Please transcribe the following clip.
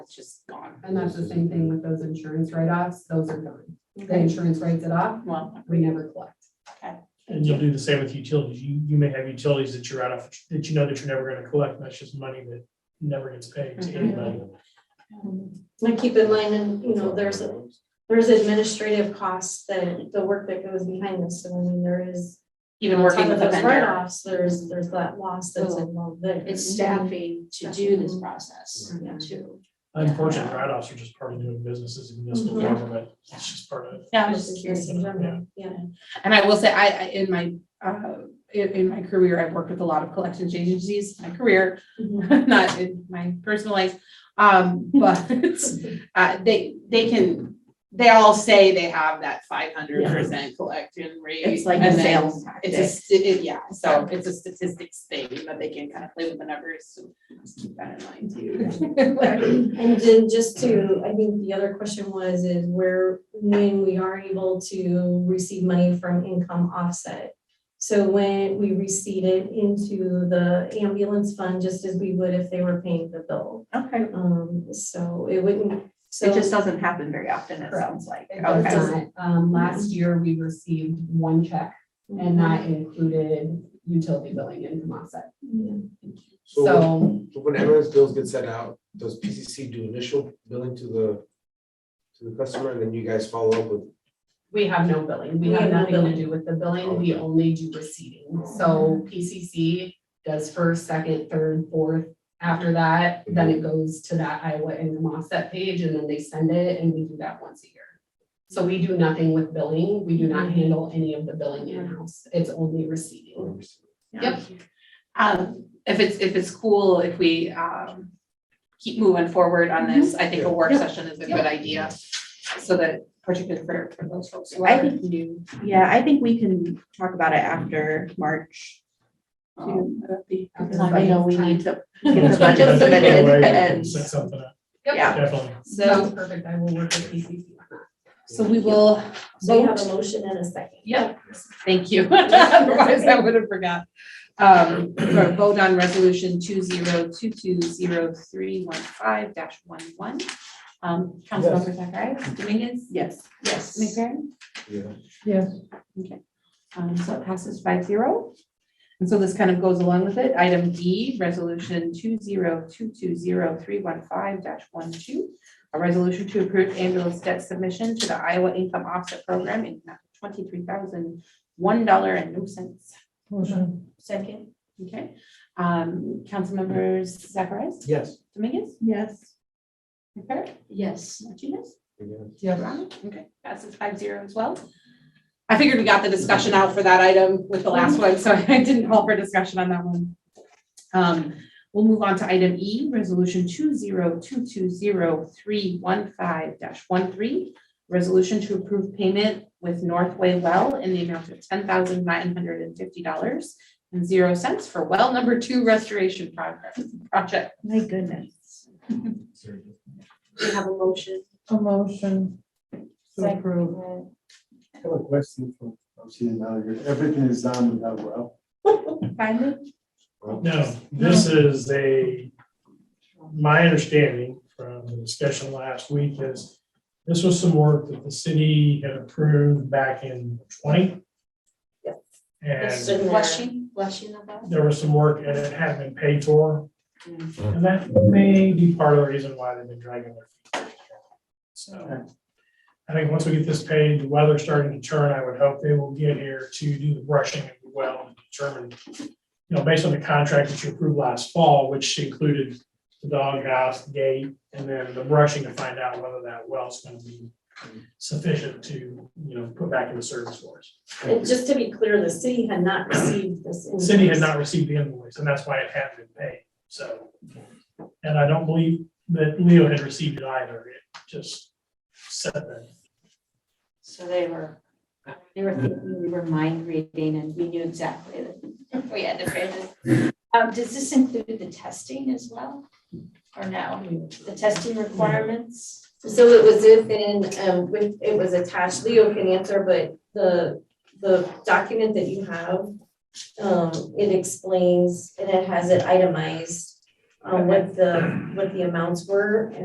It's just gone. And that's the same thing with those insurance write-offs, those are gone. The insurance writes it off, Well, we never collect. And you'll do the same with utilities. You, you may have utilities that you're out of, that you know that you're never gonna collect, and that's just money that never gets paid Mm-hmm. to anybody. Um, And keep in mind, and you know, there's, a- there's administrative costs that, the work that goes behind this, so I mean, there is. even working with a those vendor, Write-offs, there's, there's that loss that's Well, involved there. it's staffing to do this process Yeah. too. Unfortunately, write-offs are just part of doing business as a municipal Mm-hmm. Mhm. government. It's just part of it. Yeah, I was just Business curious. in general, Yeah. And I will say, I, I, in my, uh, in, in my career, I've worked with a lot of collections agencies, my career, Mhm. not in my personal life. Um, but, uh, they, they can, they all say they have that five hundred percent collection rate. It's like a and then sales It's a, sti- it- yeah, so it's a statistics thing, but they can kind of play with the numbers, so just keep that in mind too. And then just to, I think the other question was, is where, when we are able to receive money from income offset. So when we receive it into the ambulance fund, just as we would if they were paying the bill. Okay, Um, so it wouldn't, so. it just doesn't happen very often, it sounds like. It Okay. does not. Um, last year, we received one check and uh, that included utility billing and from offset. So So when ambulance bills get sent out, does PCC do initial billing to the, to the customer and then you guys follow up with? we have no billing. Mm-hmm. We have nothing to do with the billing. We only do receiving. So PCC does first, second, third, fourth. After that, then it goes to that Iowa income offset page and then they send it and we do that once a year. So we do nothing with billing. We do not handle any of the billing in-house. It's only receiving. Yep. Um, if it's, if it's cool, if we, um, keep moving forward on this, Mm-hmm. I think a work session is a good idea. So that particularly for, for those folks who I are think- new. Yeah, I think we can talk about it after March. um, that'd be- because I know we need to get the It's not budget gonna take submitted away, and, Set something up, Yep. yeah. definitely. Sounds So, perfect. I will work with PCC on that. so we will So you have a vote. motion and a second. Yep, thank you. Otherwise I would have forgot. Um, for a vote on resolution two zero two two zero three one five dash one one. Um, Councilmember Zacharias Dominguez? Yes. Yes. McFerrin? Yeah. Um, so it passes five zero. And so this kind of goes along with it. Item D, resolution two zero two two zero three one five dash one two. A resolution to approve ambulance debt submission to the Iowa Income Offset Program in twenty-three thousand one dollar and no cents. Second. Okay, um, council members Zacharias, Yes. Dominguez, Yes. McFerrin, Yes. Martinez? Yes. Okay, passes five zero as well. I figured we got the discussion out for that item with the last one, so I didn't call for discussion on that one. Um, we'll move on to item E, resolution two zero two two zero three one five dash one three. Resolution to approve payment with Northway Well in the amount of ten thousand nine hundred and fifty dollars and zero cents for well number two restoration progress, project. My goodness. We have a motion. A motion to Second. approve. I have a question from, I'm seeing now, you're- everything is on with that well. Finally, No, this is a, my understanding from the discussion last week is this was some work that the city had approved back in twenty. It's And in there. Blushing, blushing about. there was some work and it hadn't been paid for. And that may be part of the reason why they've been dragging their feet. So I think once we get this paid, the weather's starting to turn, I would hope they will get here to do the brushing of the well and determine, you know, based on the contract that you approved last fall, which included the doghouse, the gate, and then the brushing to find out whether that well's gonna be sufficient to, you know, put back into service for us. And just to be clear, the city had not received this. The City had invoice. not received the invoice, and that's why it hadn't been paid, so. And I don't believe that Leo had received it either, it just said that. So they were, they were, thinking we were mind reading and we knew exactly that we had to pay this. Um, does this include the testing as well? Or no? The testing requirements? So it was within, um, with, it was attached, Leo can answer, but the, the document that you have, um, it explains, and it has it itemized, um, what the, what the amounts were,